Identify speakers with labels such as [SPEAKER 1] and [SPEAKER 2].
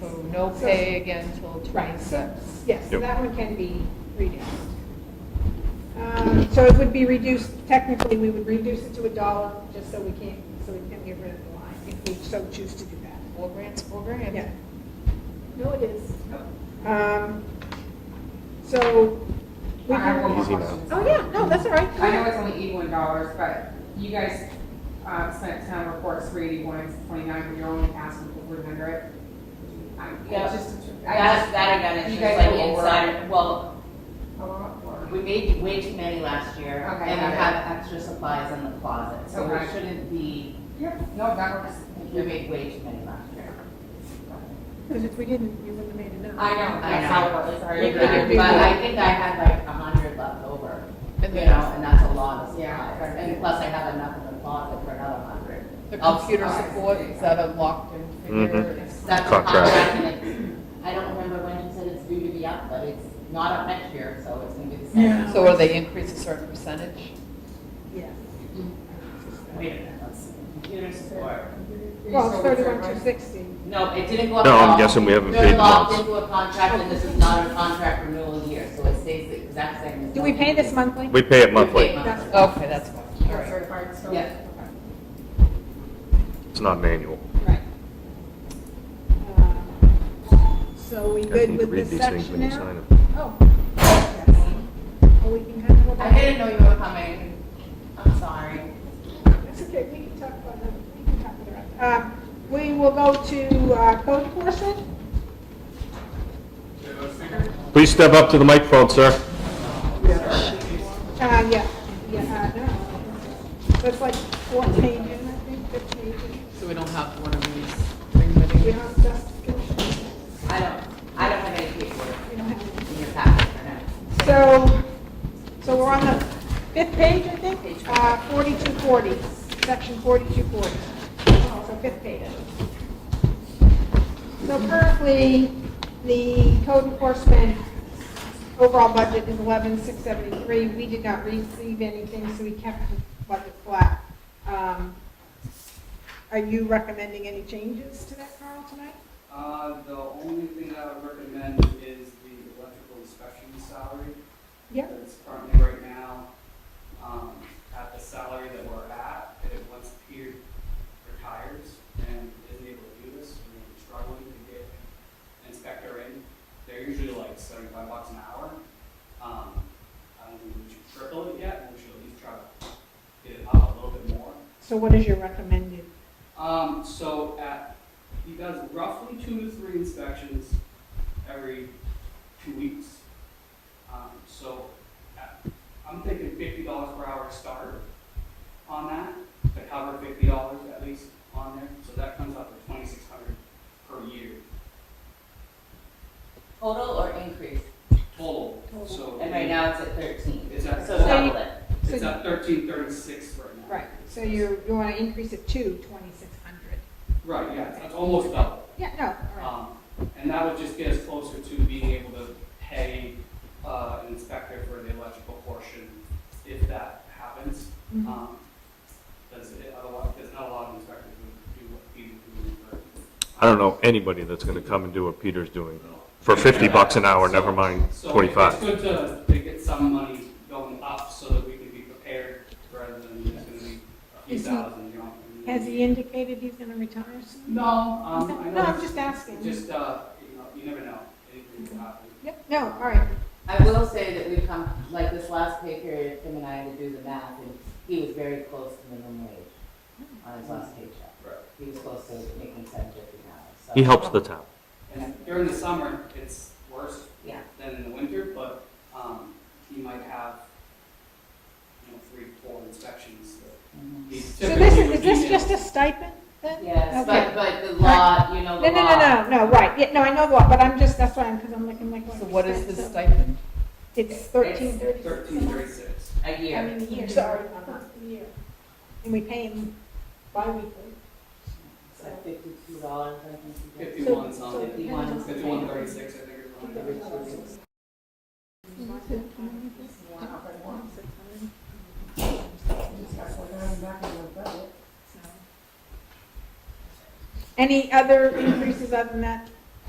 [SPEAKER 1] So no pay again till
[SPEAKER 2] Right, so,
[SPEAKER 1] 26.
[SPEAKER 2] yes, so
[SPEAKER 3] Yep.
[SPEAKER 2] that one can be reduced. Um, So it would be reduced, technically, we would reduce it to a dollar, just so we can't, so we can get rid of the line, if we so choose to do that.
[SPEAKER 1] Four grants, four grand.
[SPEAKER 2] Yeah. No, it is. Um, So. we
[SPEAKER 4] I have one more
[SPEAKER 3] Easy now.
[SPEAKER 4] question.
[SPEAKER 2] Oh, yeah, no, that's all right.
[SPEAKER 4] I know it's only eighty-one dollars, but you guys, uh, spent town reports for eighty-one, twenty-nine, but you're only asking for three hundred.
[SPEAKER 5] Yep.
[SPEAKER 4] just, I
[SPEAKER 5] That's, that I got it,
[SPEAKER 4] You
[SPEAKER 5] just
[SPEAKER 4] guys
[SPEAKER 5] like
[SPEAKER 4] go over.
[SPEAKER 5] inside, well,
[SPEAKER 4] just. a lot more.
[SPEAKER 5] we made way too many last year, and
[SPEAKER 4] Okay,
[SPEAKER 5] we
[SPEAKER 4] got it.
[SPEAKER 5] have extra supplies in the closet, so we
[SPEAKER 4] Okay.
[SPEAKER 5] shouldn't be,
[SPEAKER 4] Yeah, no, that works.
[SPEAKER 5] we made way too many last year.
[SPEAKER 2] Because if we didn't, you wouldn't have made enough.
[SPEAKER 4] I know,
[SPEAKER 5] I
[SPEAKER 4] that's
[SPEAKER 5] know.
[SPEAKER 4] how it was.
[SPEAKER 5] But
[SPEAKER 4] Sorry.
[SPEAKER 1] You could have been
[SPEAKER 5] I think I had like a hundred left over, you
[SPEAKER 1] And
[SPEAKER 5] know,
[SPEAKER 1] then-
[SPEAKER 5] and that's a lot of
[SPEAKER 4] Yeah.
[SPEAKER 5] supplies, and plus I have enough in the closet for another hundred.
[SPEAKER 1] The
[SPEAKER 5] Oh,
[SPEAKER 1] computer
[SPEAKER 4] sorry.
[SPEAKER 1] support, is that a locked-in
[SPEAKER 3] Mhm.
[SPEAKER 1] figure?
[SPEAKER 5] That's a
[SPEAKER 3] Contract.
[SPEAKER 5] contract, and it's, I don't remember when you said it's due to be up, but it's not up next year, so it's gonna be the same.
[SPEAKER 2] Yeah.
[SPEAKER 1] So will they increase a certain percentage?
[SPEAKER 2] Yes.
[SPEAKER 5] Wait a minute, let's see, computer support.
[SPEAKER 2] Well, it's thirty-one to sixty.
[SPEAKER 5] No, it didn't go up.
[SPEAKER 3] No,
[SPEAKER 5] at
[SPEAKER 3] I'm
[SPEAKER 5] all.
[SPEAKER 3] guessing we haven't
[SPEAKER 5] They're
[SPEAKER 3] paid the
[SPEAKER 5] locked
[SPEAKER 3] months.
[SPEAKER 5] into a contract, and this is not a contract renewal year, so it stays the exact same. as
[SPEAKER 2] Do we pay this
[SPEAKER 5] month?
[SPEAKER 2] monthly?
[SPEAKER 3] We pay it
[SPEAKER 5] We pay
[SPEAKER 3] monthly.
[SPEAKER 5] it
[SPEAKER 2] That's-
[SPEAKER 5] monthly.
[SPEAKER 1] Okay, that's fine. All right.
[SPEAKER 4] Certified, so.
[SPEAKER 5] Yeah.
[SPEAKER 3] It's not an annual.
[SPEAKER 4] Right.
[SPEAKER 2] Um, So we
[SPEAKER 3] You guys
[SPEAKER 2] good
[SPEAKER 3] need to
[SPEAKER 2] with
[SPEAKER 3] read
[SPEAKER 2] this
[SPEAKER 3] these things
[SPEAKER 2] section
[SPEAKER 3] when you
[SPEAKER 2] now?
[SPEAKER 3] sign them.
[SPEAKER 2] Oh. yes. Oh, we can kind of go
[SPEAKER 5] I
[SPEAKER 2] back.
[SPEAKER 5] didn't know you were coming. I'm sorry.
[SPEAKER 2] That's okay, we can talk about that, we can talk about that. Uh, We will go to uh, code enforcement.
[SPEAKER 3] Please step up to the microphone, sir.
[SPEAKER 2] Uh, yeah, yeah, uh, no. That's like four pages, I think, fifteen pages.
[SPEAKER 1] So we don't have one of these.
[SPEAKER 2] We don't have justification,
[SPEAKER 5] Oh, I don't, I don't have any paperwork
[SPEAKER 2] we don't have any.
[SPEAKER 5] in your packet for now.
[SPEAKER 2] So, so we're on the fifth page, I think, uh, 4240, section 4240. So fifth page. So currently, the code enforcement overall budget is 11,673. We did not receive anything, so we kept the budget flat. Um, Are you recommending any changes to that, Carl, tonight?
[SPEAKER 6] Uh, the only thing I would recommend is the electrical inspection salary.
[SPEAKER 2] Yep.
[SPEAKER 6] That's currently right now, um, at the salary that we're at, and if once Peter retires and isn't able to do this, we're struggling to get an inspector in. They're usually like seventy-five bucks an hour. Um, I don't think we should triple it yet, we should at least try to get it up a little bit more.
[SPEAKER 2] So what is your recommended?
[SPEAKER 6] Um, so at, he does roughly two to three inspections every two weeks. Um, so at, I'm thinking fifty dollars per hour start on that, to cover fifty dollars at least on there, so that comes up to twenty-six hundred per year
[SPEAKER 5] Total or increase?
[SPEAKER 6] total, so.
[SPEAKER 5] And right now it's at thirteen.
[SPEAKER 6] It's at-
[SPEAKER 5] So double it.
[SPEAKER 6] It's at thirteen thirty-six right now.
[SPEAKER 2] Right, so you, you want to increase it to 2,600?
[SPEAKER 6] Right, yeah, it's almost double.
[SPEAKER 2] Yeah, no, all right.
[SPEAKER 6] Um, And that would just get us closer to being able to pay uh, an inspector for the electrical portion if that happens.
[SPEAKER 2] Mhm.
[SPEAKER 6] Because otherwise, there's not a lot of inspectors who do what Peter doing for.
[SPEAKER 3] I don't know anybody that's going to come and do what Peter's doing for 50 bucks an hour, never mind
[SPEAKER 6] So- So
[SPEAKER 3] 25.
[SPEAKER 6] it's good to- to get some money going up so that we can be prepared rather than just going to be a few
[SPEAKER 2] Is he-
[SPEAKER 6] thousand, you know.
[SPEAKER 2] Uh, Has he indicated he's going to retire soon?
[SPEAKER 6] No, um, I know.
[SPEAKER 2] No, I'm
[SPEAKER 6] it's-
[SPEAKER 2] just asking.
[SPEAKER 6] Just, uh, you know, you never know. Anything can happen.
[SPEAKER 2] Yep, no, all right.
[SPEAKER 5] I will say that we've come, like this last pay period, Tim and I had to do the math, and he was very close to minimum wage on his last paycheck.
[SPEAKER 6] Right.
[SPEAKER 5] He was close to making seven fifty an hour, so.
[SPEAKER 3] He helps the town.
[SPEAKER 6] And during the summer, it's worse
[SPEAKER 5] Yeah.
[SPEAKER 6] than in the winter, but um, you might have, you know, three, four inspections that
[SPEAKER 5] Mhm.
[SPEAKER 6] he
[SPEAKER 2] So this
[SPEAKER 6] typically
[SPEAKER 2] is,
[SPEAKER 6] would
[SPEAKER 2] is
[SPEAKER 6] be
[SPEAKER 2] this
[SPEAKER 6] in.
[SPEAKER 2] just a stipend then?
[SPEAKER 5] Yes,
[SPEAKER 2] Okay.
[SPEAKER 5] but, but the law, you know,
[SPEAKER 2] No,
[SPEAKER 5] the
[SPEAKER 2] no,
[SPEAKER 5] law.
[SPEAKER 2] no, no, no, right, yeah, no, I know what, but I'm just, that's why I'm, because I'm looking like.
[SPEAKER 1] So what is
[SPEAKER 2] percent,
[SPEAKER 1] the
[SPEAKER 2] so
[SPEAKER 1] stipend?
[SPEAKER 2] It's thirteen thirty.
[SPEAKER 6] Thirteen thirty-six.
[SPEAKER 5] A
[SPEAKER 2] I
[SPEAKER 5] year.
[SPEAKER 2] mean, a year, sorry, a year. And we pay him bi-weekly.
[SPEAKER 5] It's like fifty-two dollars, I think. you get.
[SPEAKER 6] Fifty-one
[SPEAKER 2] So-
[SPEAKER 6] something.
[SPEAKER 2] so it depends on-
[SPEAKER 6] Fifty-one thirty-six, I think, or something.
[SPEAKER 2] Any other increases other than that?